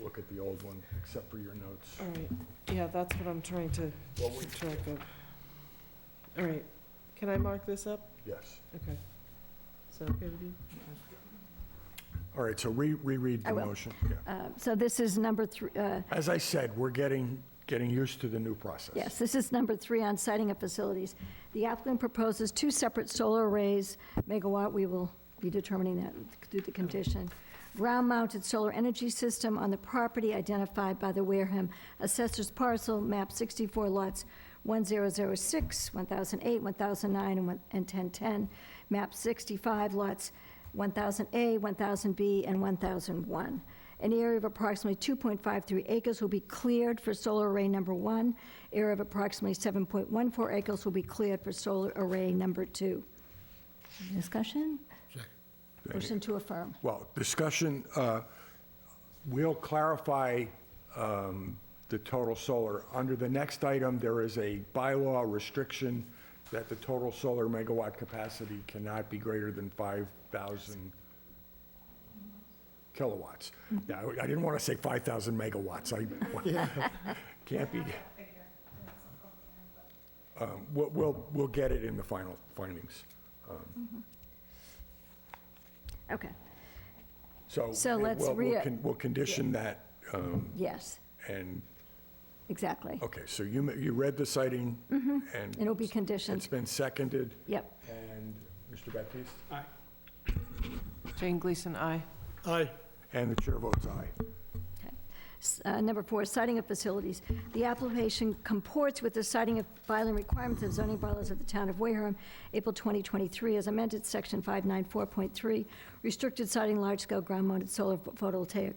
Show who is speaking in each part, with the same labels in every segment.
Speaker 1: look at the old one, except for your notes.
Speaker 2: All right, yeah, that's what I'm trying to
Speaker 1: Well, we-
Speaker 2: keep track of. All right, can I mark this up?
Speaker 1: Yes.
Speaker 2: Okay. Is that okay with you?
Speaker 1: All right, so re- reread
Speaker 3: I
Speaker 1: the
Speaker 3: will.
Speaker 1: motion. Yeah.
Speaker 3: Uh, So this is number three, uh,
Speaker 1: As I said, we're getting, getting used to the new process.
Speaker 3: yes, this is number three on siting of facilities. The applicant proposes two separate solar arrays, megawatt, we will be determining that through the condition. Ground-mounted solar energy system on the property identified by the Wareham Assessor's Parcel, map 64 lots 1006, 1008, 1009, and one- and 1010, map 65 lots 1000A, 1000B, and 1001. An area of approximately 2.53 acres will be cleared for solar array number one. Area of approximately 7.14 acres will be cleared for solar array number two. Discussion? Motion to affirm.
Speaker 1: Well, discussion, uh, we'll clarify um, the total solar. Under the next item, there is a bylaw restriction that the total solar megawatt capacity cannot be greater than 5,000 kilowatts. Now, I didn't want to say 5,000 megawatts. I, can't be. Um, We'll, we'll, we'll get it in the final findings.
Speaker 3: Okay,
Speaker 1: So.
Speaker 3: So
Speaker 1: it-
Speaker 3: let's
Speaker 1: we'll- we'll
Speaker 3: rea-
Speaker 1: con- We'll condition that, um,
Speaker 3: yes,
Speaker 1: and,
Speaker 3: exactly.
Speaker 1: okay, so you, ma- you read the citing? Mm-hmm. And.
Speaker 3: It'll be
Speaker 1: It's
Speaker 3: conditioned,
Speaker 1: been seconded,
Speaker 3: yep.
Speaker 1: and Mr. Baptiste?
Speaker 2: Jane Gleason, aye.
Speaker 4: Aye.
Speaker 1: And the chair votes aye.
Speaker 3: S- uh, Number four, siting of facilities. The application comports with the siting of filing requirements of zoning bylaws of the town of Wareham, April 2023, as amended, section 594.3, restricted siting large-scale ground-mounted solar photovoltaic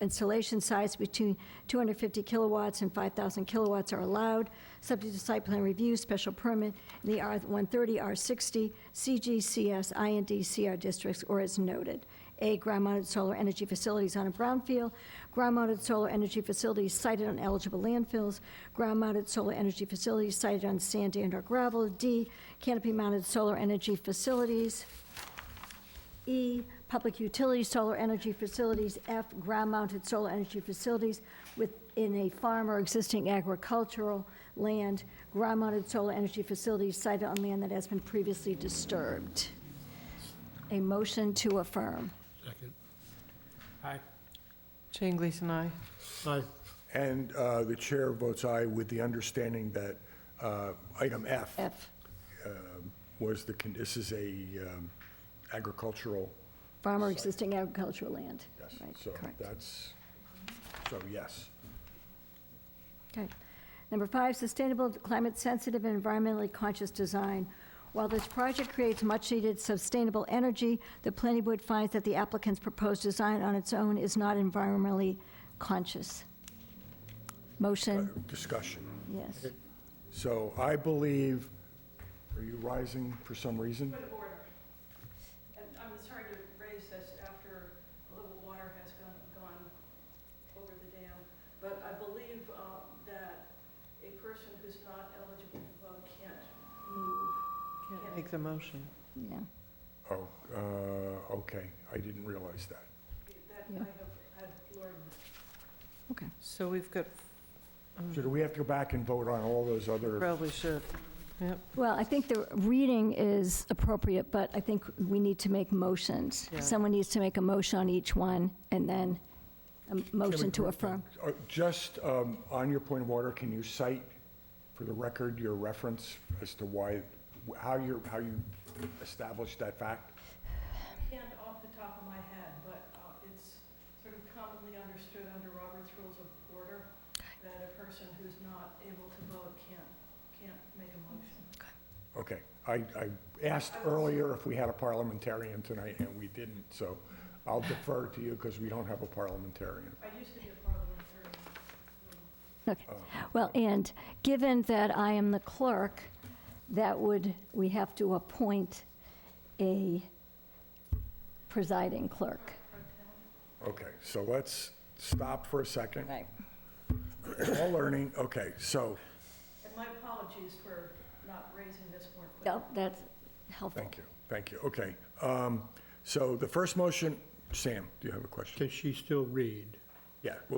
Speaker 3: installation size between 250 kilowatts and 5,000 kilowatts are allowed, subject to site plan review, special permit, in the R130, R60, CGCS, IND, CR districts, or as noted. A, ground-mounted solar energy facilities on a brownfield, ground-mounted solar energy facilities sited on eligible landfills, ground-mounted solar energy facilities sited on sand and or gravel. D, canopy-mounted solar energy facilities. E, public utility solar energy facilities. F, ground-mounted solar energy facilities within a farm or existing agricultural land, ground-mounted solar energy facilities sited on land that has been previously disturbed. A motion to affirm.
Speaker 4: Second. Aye.
Speaker 2: Jane Gleason, aye.
Speaker 4: Aye.
Speaker 1: And uh, the chair votes aye with the understanding that uh, item F
Speaker 3: F,
Speaker 1: was the, con- this is a um, agricultural,
Speaker 3: farm or existing agricultural land.
Speaker 1: yes,
Speaker 3: Right,
Speaker 1: so
Speaker 3: correct.
Speaker 1: that's, so yes.
Speaker 3: Okay. Number five, sustainable, climate-sensitive, and environmentally conscious design. While this project creates much-needed sustainable energy, the planning board finds that the applicant's proposed design on its own is not environmentally conscious. Motion,
Speaker 1: Discussion.
Speaker 3: yes.
Speaker 1: So I believe, are you rising for some reason?
Speaker 5: Point of order. And I'm sorry to raise this after a little water has gone, gone over the dam, but I believe uh, that a person who's not eligible to vote can't move.
Speaker 2: Can't make the motion.
Speaker 3: Yeah.
Speaker 1: Oh, uh, okay, I didn't realize that.
Speaker 5: That
Speaker 3: Yeah.
Speaker 5: I have, I've learned that.
Speaker 2: So we've got, um,
Speaker 1: So do we have to go back and vote on all those other,
Speaker 2: probably should.
Speaker 3: Well, I think the reading is appropriate, but I think we need to make motions.
Speaker 2: Yeah.
Speaker 3: Someone needs to make a motion on each one, and then a motion to affirm.
Speaker 1: Uh, just um, on your point of order, can you cite for the record your reference as to why, how you, how you established that fact?
Speaker 5: Can't off the top of my head, but uh, it's sort of commonly understood under Robert's Rules of Order that a person who's not able to vote can't, can't make a motion.
Speaker 1: Okay, I, I asked earlier if we had a parliamentarian tonight, and we didn't, so I'll defer to you because we don't have a parliamentarian.
Speaker 5: I used to be a parliamentarian.
Speaker 3: Okay. Well, and given that I am the clerk, that would, we have to appoint a presiding clerk.
Speaker 1: Okay, so let's stop for a second.
Speaker 3: Right.
Speaker 1: We're All learning, okay, so,
Speaker 5: And my apologies for not raising this more quickly.
Speaker 3: Yep, that's helpful.
Speaker 1: thank you, thank you, okay. um, So the first motion, Sam, do you have a question?
Speaker 4: Can she still read?
Speaker 1: Yeah, well,